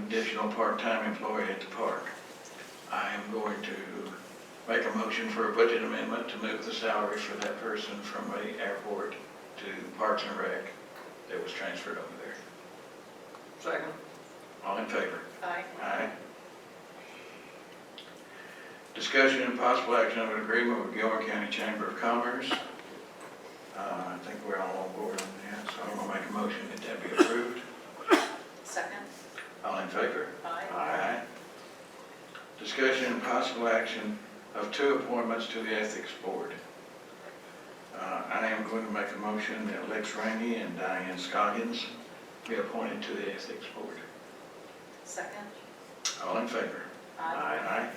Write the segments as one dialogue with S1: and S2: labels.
S1: additional part-time employee at the park. I am going to make a motion for a budget amendment to move the salary for that person from the airport to Parks and Rec that was transferred over there.
S2: Second.
S1: All in favor?
S3: Aye.
S1: Aye. Discussion and possible action of an agreement with Gilmer County Chamber of Commerce. Uh, I think we're all on board on that, so I'm gonna make a motion that that be approved.
S3: Second?
S1: All in favor?
S3: Aye.
S1: Aye. Discussion and possible action of two appointments to the Ethics Board. Uh, I am going to make a motion that Lex Rainey and Diane Scoggins be appointed to the Ethics Board.
S3: Second?
S1: All in favor? Aye.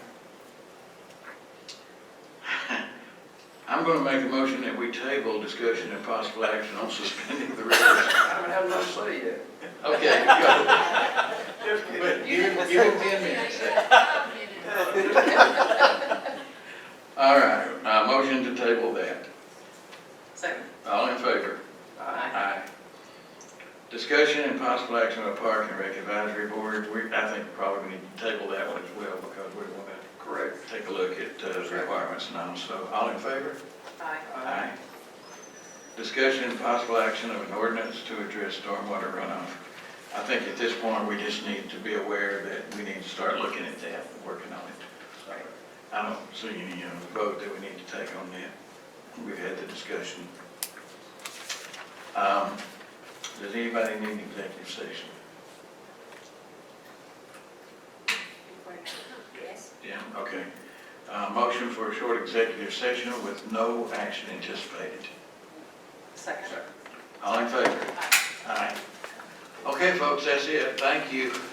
S1: I'm going to make a motion that we table discussion and possible action on suspending the rules.
S2: I haven't had enough say yet.
S1: Okay, go.
S2: Just kidding.
S1: But Give it- give it ten minutes. All right, uh, motion to table that.
S3: Second?
S1: All in favor?
S2: Aye.
S1: Discussion and possible action on Park and Rec Advisory Board. We, I think probably need to table that one as well because we want to
S2: Correct.
S1: take a look at uh, requirements and all. So all in favor?
S3: Aye.
S1: Aye. Discussion and possible action of an ordinance to address stormwater runoff. I think at this point, we just need to be aware that we need to start looking at that and working on it. So, I don't see any uh, vote that we need to take on that. We've had the discussion. Um, Does anybody need an executive session?
S3: Yes.
S1: Yeah, okay. Uh, Motion for a short executive session with no action anticipated.
S3: Second?
S1: All in favor?
S3: Aye.
S1: All right. Okay, folks, that's it. Thank you.